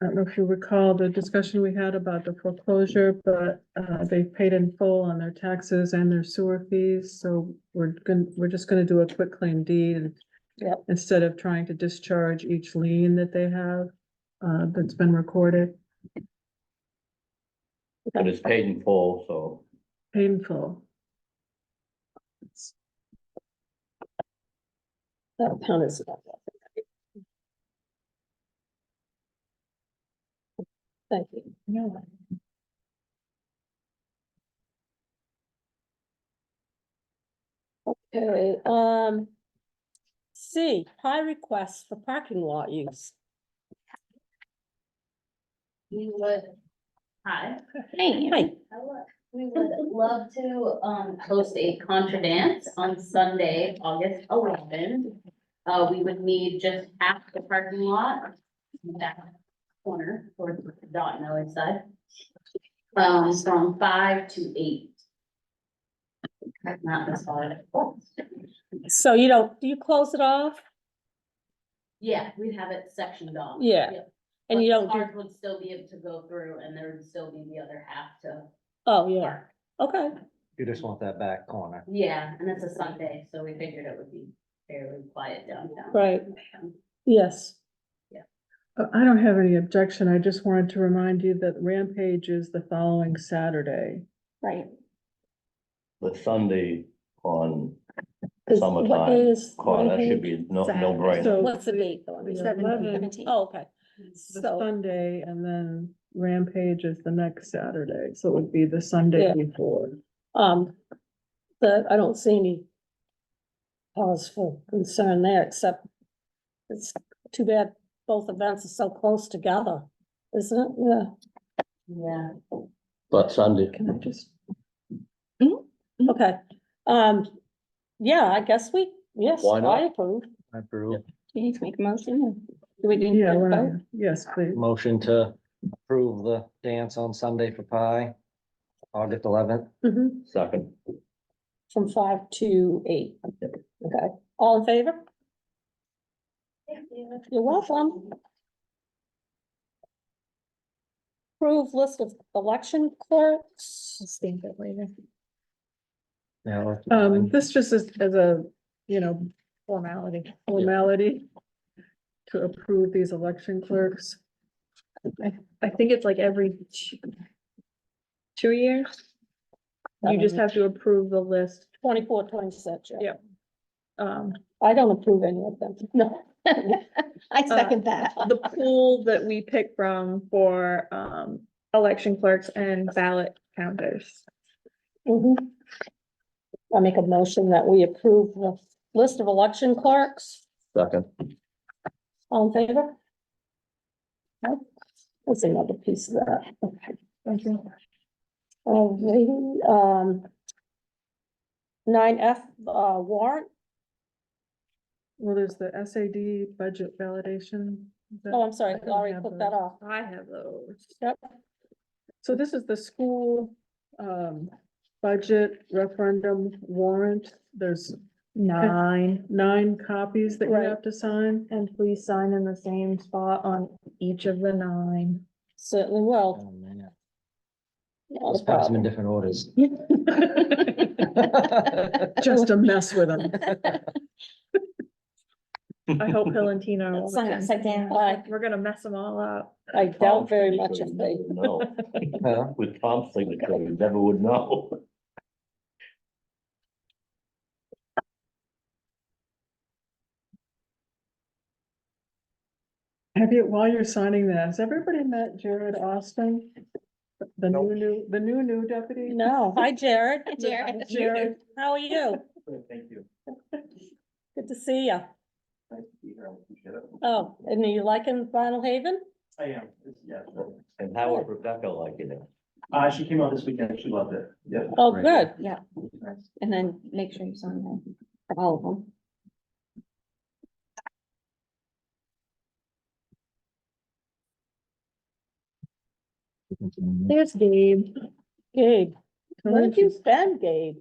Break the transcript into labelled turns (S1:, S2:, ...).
S1: I don't know if you recall the discussion we had about the foreclosure, but uh they've paid in full on their taxes and their sewer fees, so we're gonna, we're just gonna do a quick claim deed and
S2: Yep.
S1: instead of trying to discharge each lien that they have uh that's been recorded,
S3: But it's paid in full, so
S1: painful.
S2: That account is not that. Thank you. No. Okay, um. C, high requests for parking lot use.
S4: We would. Hi.
S2: Hey.
S4: We would love to, um, host a contra dance on Sunday, August eleventh. Uh, we would need just half the parking lot, that corner, or dot no inside. Um, from five to eight. That's Not this far.
S2: So you don't, do you close it off?
S4: Yeah, we'd have it sectioned off.
S2: Yeah, And you
S4: But
S2: don't do,
S4: Cars would still be able to go through and there would still be the other half to
S2: oh, yeah,
S4: park.
S2: okay,
S5: You just want that back corner.
S4: Yeah, and it's a Sunday, so we figured it would be fairly quiet downtown.
S2: Right. yes.
S1: Uh, I don't have any objection. I just wanted to remind you that Rampage is the following Saturday.
S2: Right.
S3: the Sunday on
S2: What
S3: Summertime.
S2: day is?
S3: call, that
S2: Rampage?
S3: should be no, no brainer.
S1: So
S2: What's the date though? I mean,
S1: the
S2: is that
S1: 11th,
S2: Oh, okay,
S1: The
S2: so,
S1: Sunday and then Rampage is the next Saturday, so it would be the Sunday
S2: Yeah.
S1: before.
S2: um, the, I don't see any cause for concern there, except it's too bad both events are so close together, isn't it? Yeah.
S4: Yeah.
S3: But Sunday,
S1: Can I just,
S6: Mm-hmm.
S2: Okay, um, yeah, I guess we, yes,
S3: Why not?
S2: I approve.
S5: I approve.
S6: Do you need to make a motion? Do we do?
S1: yeah, why not? yes, please.
S5: Motion to approve the dance on Sunday for Pi, August eleventh.
S2: Mhm.
S3: second,
S2: From five to eight. Okay, all in favor? You're welcome. Approve list of election clerks.
S6: Stamp it later.
S5: Yeah.
S1: Um, this just is, as a, you know,
S6: Formality.
S1: formality to approve these election clerks.
S6: I think it's like every two- two years. You just have to approve the list.
S2: Twenty-four, twenty-six. yeah.
S6: Yep. Um,
S2: I don't approve any of them. No.
S6: I
S7: second that.
S6: Uh, the pool that we pick from for um election clerks and ballot counters.
S2: Mhm. I make a motion that we approve the list of election clerks.
S3: second.
S2: All in favor? No? That's another piece of that. Okay.
S6: Thank you.
S2: Alrighty, um. Nine F, uh, warrant.
S1: Well, there's the SAD budget validation. Is that-
S2: Oh, I'm sorry,
S1: I don't
S2: Laurie
S1: have
S2: put
S1: those.
S2: that off.
S6: I have those.
S2: Yep.
S1: So this is the school, um, budget referendum warrant. There's
S6: Nine,
S1: nine copies that you
S2: Right.
S1: have to sign.
S6: and please sign in the same spot on each of the nine.
S2: Certainly will.
S5: Oh, man.
S2: Not
S5: Let's
S2: a
S5: pass them
S2: problem.
S5: in different orders.
S1: Just to mess with them.
S6: I hope Bill and Tina are
S2: Sign
S6: watching.
S2: down. I,
S6: We're gonna mess them all up.
S2: I doubt very much
S3: Tom's
S2: if they,
S3: signature, you never know.
S5: Huh?
S3: With Tom's signature, you never would know.
S1: Have you, while you're signing that, has everybody met Jared Austin? The new, new, the new, new deputy?
S2: no. Hi, Jared.
S6: Jared.
S2: Jared, how are you?
S3: Thank you.
S2: Good to see you. Oh, and are you liking Vinyl Haven?
S8: I am, it's- yeah.
S3: And how would Rebecca like it?
S8: Uh, she came out this weekend, she loved it, yeah.
S2: Oh,
S5: Right.
S2: good.
S6: And then make sure you sign them, all of them. There's Gabe.
S2: Gabe, where have you been, Gabe?